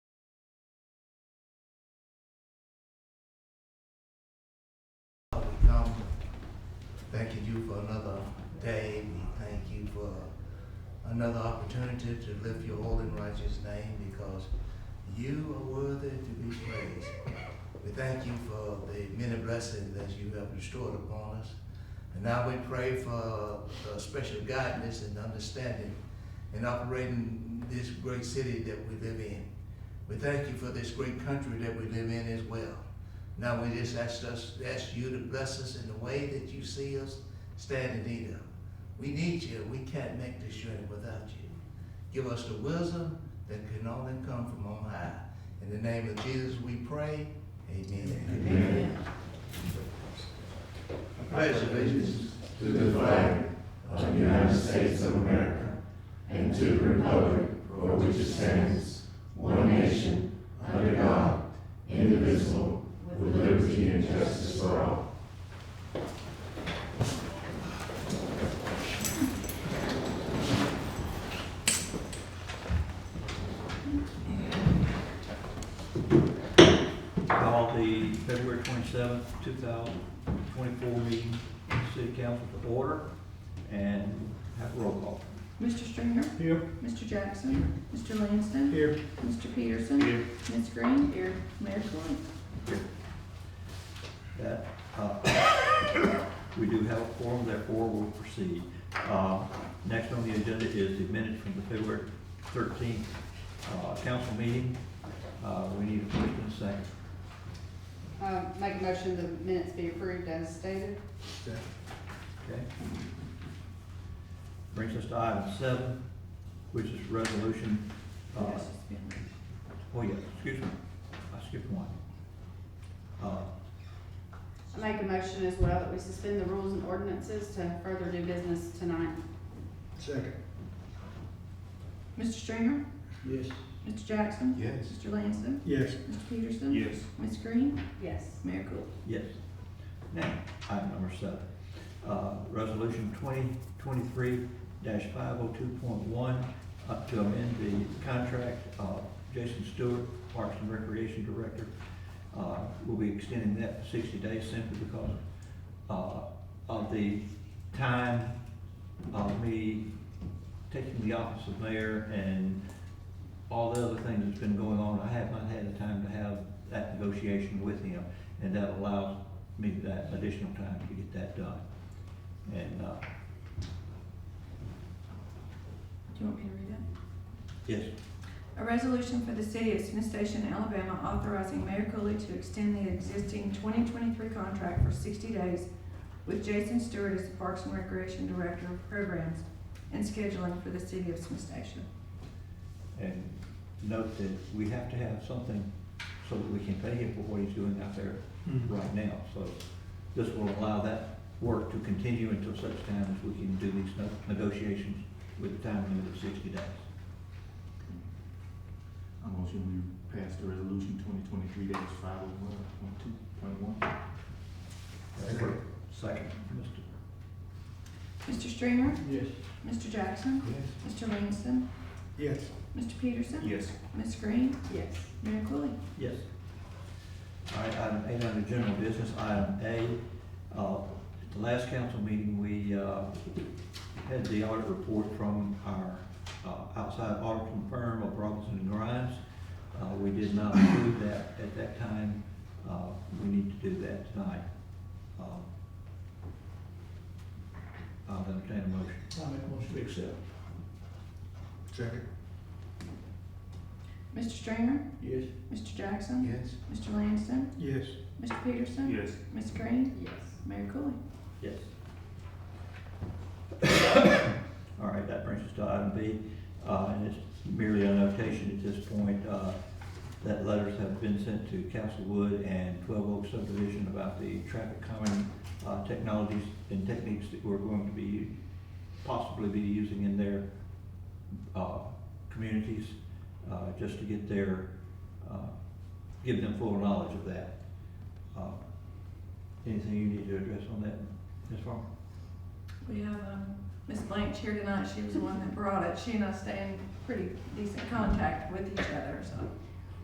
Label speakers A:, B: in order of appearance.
A: thanking you for another day. We thank you for another opportunity to lift your holy and righteous name because you are worthy to be praised. We thank you for the many blessings that you have restored upon us. And now we pray for uh, special guidance and understanding in operating this great city that we live in. We thank you for this great country that we live in as well. Now we just ask us, ask you to bless us in the way that you see us stand in need of. We need you. We can't make this journey without you. Give us the wisdom that can only come from on high. In the name of Jesus, we pray. Amen. Pledge allegiance
B: to the flag of the United States of America and to the republic for which it stands, one nation, under God, indivisible, with liberty and justice for all.
C: Call the February twenty-seventh, two thousand twenty-four meeting, of the City Council to order, and have a roll call.
D: Mr. Stringer?
C: Here.
D: Mr. Jackson? Mr. Langston?
C: Here.
D: Mr. Peterson?
C: Here.
D: Ms. Green? Here. Mayor Coyne?
C: That, uh, we do have a forum, therefore we'll proceed. Uh, Next on the agenda is the minutes from the February thirteenth, uh, council meeting. Uh, we need a first and a second.
E: Uh, Make a motion the minutes be approved as stated.
C: Okay. Brings us to item seven, which is resolution, uh,
D: Yes, it's been-
C: oh yeah, excuse me, I skipped one. Uh,
E: I Make a motion as well that we suspend the rules and ordinances to further do business tonight.
F: Second.
D: Mr. Stringer?
F: Yes.
D: Mr. Jackson?
A: Yes.
D: Mr. Langston?
F: Yes.
D: Mr. Peterson?
F: Yes.
D: Ms. Green?
E: Yes.
D: Mayor Coyne?
C: Yes. Now, item number seven, uh, resolution twenty twenty-three five oh two point one, up to amend the contract of Jason Stewart, Parks and Recreation Director. Uh, we'll be extending that to sixty days simply because, uh, of the time of me taking the office of mayor and all the other things that's been going on, I have not had the time to have that negotiation with him, and that allows me that additional time to get that done. And, uh,
D: Do you want me to read that?
C: yes,
D: A resolution for the city of Smith Station, Alabama, authorizing Mayor Cooley to extend the existing twenty twenty-three contract for sixty days with Jason Stewart as the Parks and Recreation Director of Programs and Scheduling for the city of Smith Station.
C: and note that we have to have something so that we can pay him for what he's doing out there right now. So this will allow that work to continue until such time as we can do these no- negotiations with a time limit of sixty days.
B: I motion we pass the resolution twenty twenty-three dash five oh one point two point one.
A: Second.
C: Second, Mr.
D: Mr. Stringer?
F: Yes.
D: Mr. Jackson?
B: Yes.
D: Mr. Langston?
F: Yes.
D: Mr. Peterson?
B: Yes.
D: Ms. Green?
E: Yes.
D: Mayor Cooley?
C: Yes. All right, item eight under general business, item A, uh, at the last council meeting, we, uh, had the audit report from our, uh, outside auditing firm of Robinson and Grimes. Uh, we did not approve that at that time, uh, we need to do that tonight. Um, I'll entertain a motion.
F: I'll make a motion to accept.
B: Second.
D: Mr. Stringer?
F: Yes.
D: Mr. Jackson?
A: Yes.
D: Mr. Langston?
F: Yes.
D: Mr. Peterson?
B: Yes.
D: Ms. Green?
E: Yes.
D: Mayor Cooley?
C: Yes. All right, that brings us to item B, uh, and it's merely a notation at this point, uh, that letters have been sent to Castlewood and Twelve Oak subdivision about the traffic calming, uh, technologies and techniques that we're going to be, possibly be using in their, uh, communities, uh, just to get their, uh, give them full knowledge of that. Uh, Anything you need to address on that, Ms. Farmer?
D: We have, um, Ms. Blanch here tonight, she was the one that brought it, she and I stay in pretty decent contact with each other, so.